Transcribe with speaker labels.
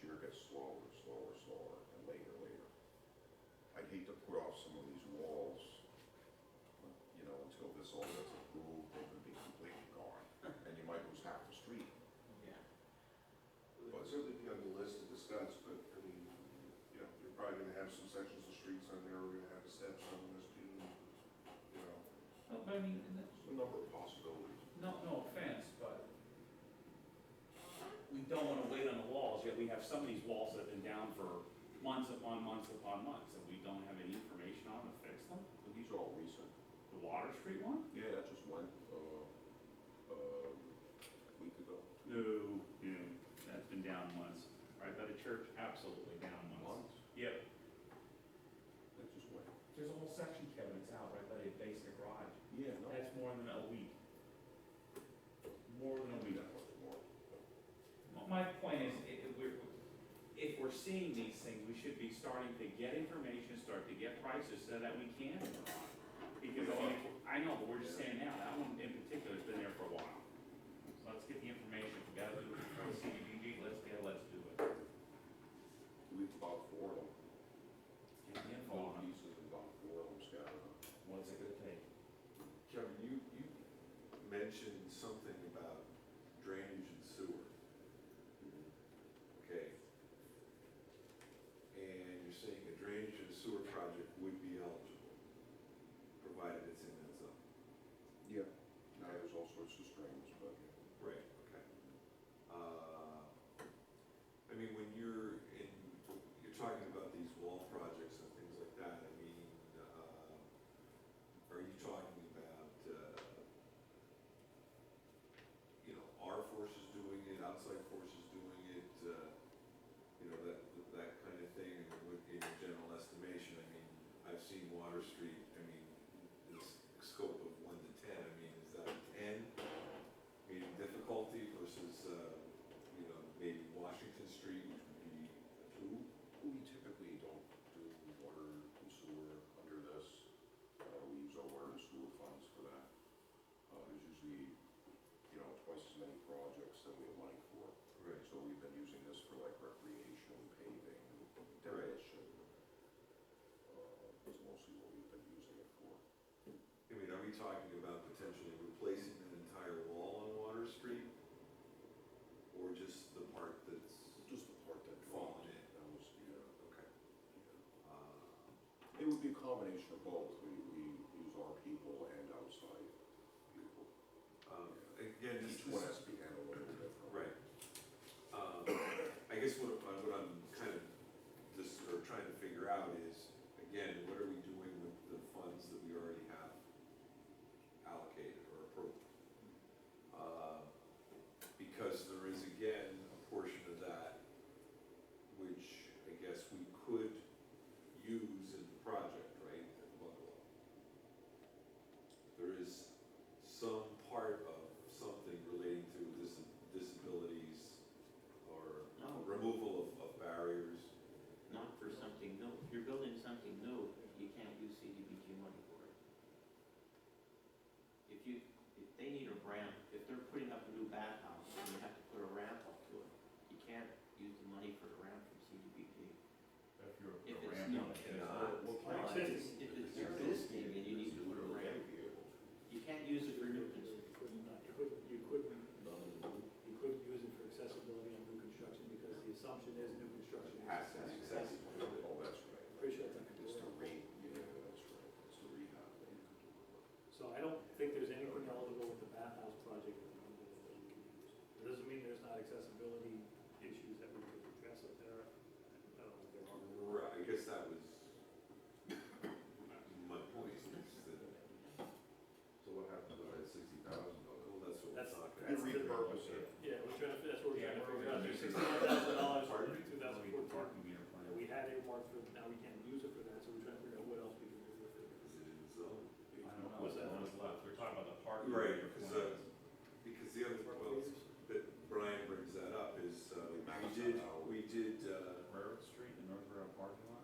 Speaker 1: year gets slower, and slower, and slower, and later, later. I'd hate to put off some of these walls, you know, until this all gets approved, they could be completely gone, and you might lose half the street.
Speaker 2: Yeah.
Speaker 3: Well, it'd certainly be on the list to discuss, but, I mean, you know, you're probably gonna have some sections of streets on there, we're gonna have the steps on this, you know.
Speaker 2: No, but I mean, and that-
Speaker 1: There's a number of possibilities.
Speaker 2: no, no offense, but we don't want to wait on the walls, yet we have some of these walls that have been down for months upon months upon months, and we don't have any information on to fix them.
Speaker 1: But These are all recent.
Speaker 2: The Water Street one?
Speaker 1: Yeah, that just went, uh, uh, a week ago.
Speaker 2: No, no, that's been down once. Right by the church, absolutely down once.
Speaker 1: Months?
Speaker 2: Yep.
Speaker 1: That just went.
Speaker 2: There's a whole section, Kevin, that's out right by the basement garage.
Speaker 1: Yeah, no.
Speaker 2: That's more than a week. More than a
Speaker 1: We
Speaker 2: week.
Speaker 1: got much more.
Speaker 2: Well, My point is, i- if we're, if we're seeing these things, we should be starting to get information, start to get prices so that we can. Because, I mean, I know, but we're just saying now, that one in particular's been there for a while. So let's get the information, we gotta do it from CDBG, let's get, let's do it.
Speaker 1: We've about four of them,
Speaker 2: Get the info
Speaker 1: four
Speaker 2: on it.
Speaker 1: pieces, and about four of them scattered. around.
Speaker 2: What's it gonna take?
Speaker 4: Kevin, you, you mentioned something about drainage and sewer, okay? And you're saying a drainage and sewer project would be eligible, provided it's in that zone.
Speaker 1: Yeah. Now, there's all sorts of strings, but
Speaker 4: Right. Okay. Uh, I mean, when you're in, you're talking about these wall projects and things like that, I mean, uh, are you talking about, uh, you know, our forces doing it, outside forces doing it, uh, you know, that, that kind of thing, and would, in general estimation, I mean, I've seen Water Street, I mean, this scope of one to ten, I mean, is that a ten? meeting difficulty versus, uh, you know, maybe Washington Street, which would be a two.
Speaker 1: we typically don't do water and sewer under this. Uh, we use our water and sewer funds for that. Uh, there's usually, you know, twice as many projects than we have money for.
Speaker 4: Right.
Speaker 1: So we've been using this for like recreation, paving, demolition. Uh, That's mostly what we've been using it for.
Speaker 4: I mean, are we talking about potentially replacing an entire wall on Water Street? Or just the part that's,
Speaker 1: Just the part that
Speaker 4: Falling in.
Speaker 1: That was, yeah,
Speaker 4: okay.
Speaker 1: yeah.
Speaker 4: Uh,
Speaker 1: It would be a combination of both. We, we use our people and outside people.
Speaker 4: um, Again, this
Speaker 1: Each one
Speaker 4: this-
Speaker 1: has to be handled a little differently.
Speaker 4: Right. Um, I guess what, I- what I'm kind of just, or trying to figure out is, again, what are we doing with the funds that we already have allocated or approved? Uh, Because there is, again, a portion of that which I guess we could use in the project, right, at the bungalow. There is some part of something relating to dis- disabilities or
Speaker 5: No.
Speaker 4: removal of, of barriers.
Speaker 5: Not for something new. If you're building something new, you can't use CDBG money for it. If you, if they need a ramp, if they're putting up a new bathhouse, and you have to put a ramp up to it, you can't use the money for the ramp from CDBG.
Speaker 2: If you're
Speaker 5: If
Speaker 2: a
Speaker 5: it's
Speaker 2: ramp
Speaker 5: not-
Speaker 2: up,
Speaker 5: if
Speaker 2: it's-
Speaker 4: not-
Speaker 5: Well, if it's, if it's existing and you need to put a ramp, you can't use it for new construction.
Speaker 6: You couldn't, you couldn't, you couldn't, you couldn't use it for accessibility on new construction because the assumption is new construction is
Speaker 4: Has to be
Speaker 6: accessible.
Speaker 1: Oh, that's right.
Speaker 6: Pretty sure it's not.
Speaker 1: It's the rate, yeah, that's right. It's the rehab.
Speaker 6: So I don't think there's anything eligible with the bathhouse project at the moment that we can use. It doesn't mean there's not accessibility issues that we could address up there. I don't know if there are.
Speaker 4: Right, I guess that was my point, is that,
Speaker 3: So what happens with that sixty thousand
Speaker 4: well, that's what we're
Speaker 6: That's-
Speaker 4: talking
Speaker 1: You
Speaker 4: about.
Speaker 6: that's-
Speaker 1: repurpose it.
Speaker 6: Yeah, we're trying to, that's what we're trying
Speaker 2: Yeah,
Speaker 6: to
Speaker 2: we're
Speaker 6: figure
Speaker 2: gonna-
Speaker 6: out. There's sixty-one thousand dollars for two thousand
Speaker 2: Parking,
Speaker 6: fourteen.
Speaker 2: parking meter plan.
Speaker 6: We had earmarked for, now we can't use it for that, so we're trying to figure out what else we can do with it.
Speaker 4: Is it in zone?
Speaker 2: I don't know, what's left, we're talking about the parking.
Speaker 4: Right,
Speaker 2: meter
Speaker 4: because,
Speaker 2: plan.
Speaker 4: uh, because the other, well, that Brian brings that up is, uh,
Speaker 1: Max
Speaker 4: we did,
Speaker 1: out.
Speaker 4: we did, uh,
Speaker 2: Railroad Street, the North Railroad parking lot?
Speaker 4: Uh,